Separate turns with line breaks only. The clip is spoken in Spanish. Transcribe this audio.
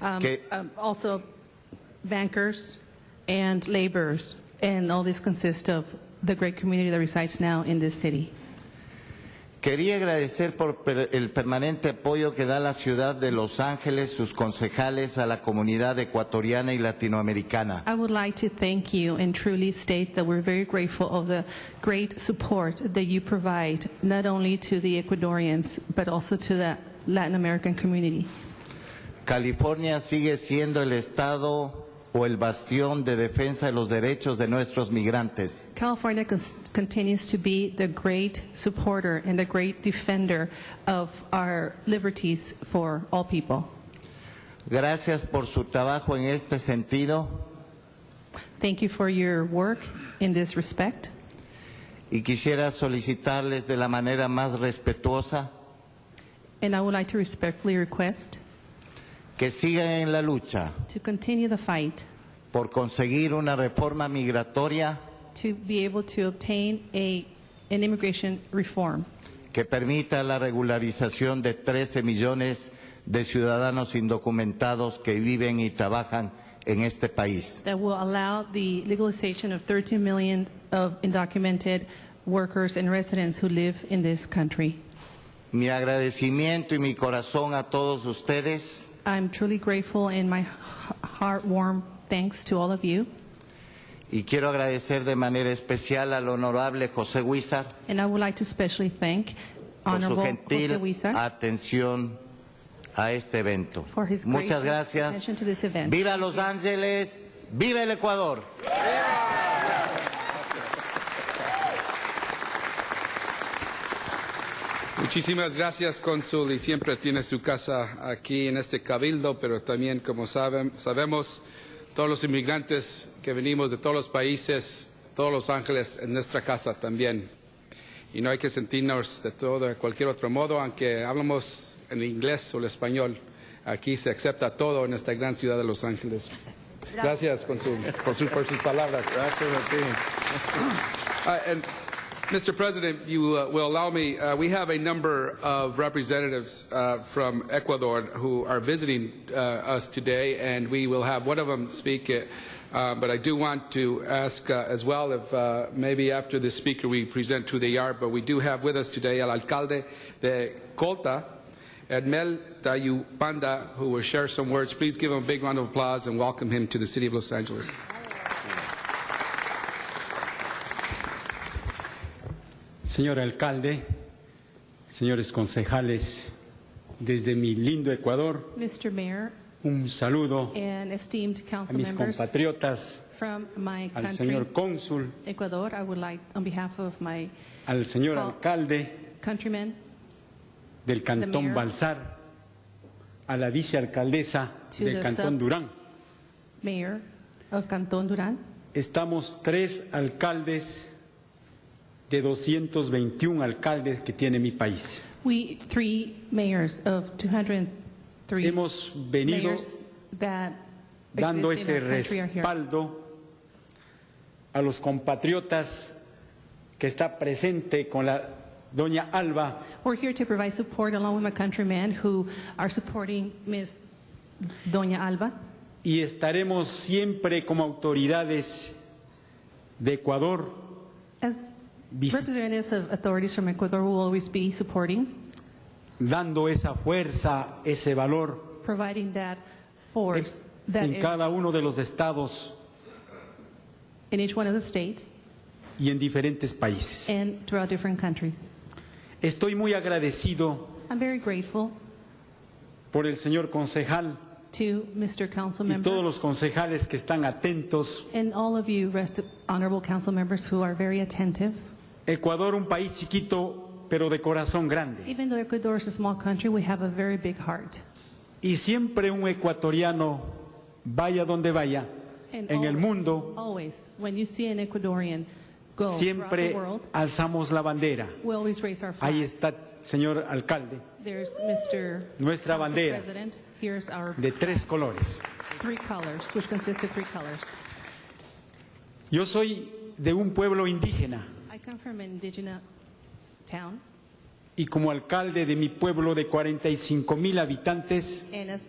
Um,
Okay.
um, Also bankers and laborers, and all this consists of the great community that resides now in this city.
Quería agradecer por per- el permanente apoyo que da la ciudad de Los Ángeles, sus concejales, a la comunidad ecuatoriana y latinoamericana.
I would like to thank you and truly state that we're very grateful of the great support that you provide, not only to the Ecuadorians, but also to the Latin American community.
California sigue siendo el estado o el bastión de defensa de los derechos de nuestros migrantes.
California cons- continues to be the great supporter and the great defender of our liberties for all people.
Gracias por su trabajo en este sentido
Thank you for your work in this respect.
y quisiera solicitarles de la manera más respetuosa
And I would like to respectfully request
que sigan en la lucha
to continue the fight
por conseguir una reforma migratoria
to be able to obtain a, an immigration reform
que permita la regularización de 13 millones de ciudadanos indocumentados que viven y trabajan en este país.
that will allow the legalization of 13 million of undocumented workers and residents who live in this country.
Mi agradecimiento y mi corazón a todos ustedes
I'm truly grateful and my h- heart warm thanks to all of you.
y quiero agradecer de manera especial al honorable José Huizar
And I would like to especially thank
por su
Honorable
gentil
José Huizar
atención a este evento.
For his
Muchas
gracious
gracias.
attention to this event.
Viva Los Ángeles, viva el Ecuador.
Muchísimas gracias, Cónsul, y siempre tiene su casa aquí en este cabildo, pero también, como saben, sabemos, todos los inmigrantes que venimos de todos los países, todos los ángeles, en nuestra casa también. Y no hay que sentirnos de todo, de cualquier otro modo, aunque hablamos en inglés o el español, aquí se acepta todo en esta gran ciudad de Los Ángeles. Gracias, Cónsul, por su- por sus palabras.
Gracias a ti.
Uh, and Mr. President, you uh, will allow me, uh, we have a number of representatives uh, from Ecuador who are visiting uh, us today, and we will have one of them speak. uh, Uh, but I do want to ask uh, as well if uh, maybe after the speaker we present who they are, but we do have with us today El Alcalde de Colta, Edmel Tayupanda, who will share some words. Please give him a big round of applause and welcome him to the City of Los Angeles.
Señor alcalde, señores concejales, desde mi lindo Ecuador,
Mr. Mayor
un saludo
and esteemed
a
council
mis
members
compatriotas,
from my
al
country,
señor cónsul,
Ecuador. I would like, on behalf of my
al señor
Well-
alcalde
countrymen,
del
mayor.
Cantón Balsar, a la vicealcaldesa
To
del
the sub-
Cantón Durán.
Mayor of Cantón Durán.
Estamos tres alcaldes de 221 alcaldes que tiene mi país.
We, three mayors of 203
Hemos venido
mayors that
dando
exist in
ese
our country are here.
respaldo a los compatriotas que está presente con la doña Alba,
We're here to provide support along with my countrymen who are supporting Ms. Doña Alba.
y estaremos siempre como autoridades de Ecuador
As
Vice-
representatives of authorities from Ecuador, we will always be supporting,
dando esa fuerza, ese valor
providing that
en,
force that
en
in,
cada uno de los estados
in each one of the states
y en diferentes países.
and throughout different countries.
Estoy muy agradecido
I'm very grateful
por el señor concejal
to Mr. Council
y todos
Member
los concejales que están atentos.
and all of you rest honorable council members who are very attentive.
Ecuador, un país chiquito, pero de corazón grande.
Even though Ecuador is a small country, we have a very big heart.
Y siempre un ecuatoriano, vaya donde vaya,
And
en el
always-
mundo,
Always, when you see an Ecuadorian go throughout the
siempre
world,
alzamos la bandera.
we always raise our
Ahí
flag.
está, señor alcalde,
There's Mr.
Nuestra
Council
bandera.
President. Here's our
de tres colores.
three colors, which consist of three colors.
Yo soy de un pueblo indígena
I come from an indigenous town,
y como alcalde de mi pueblo de 45 mil habitantes,
and as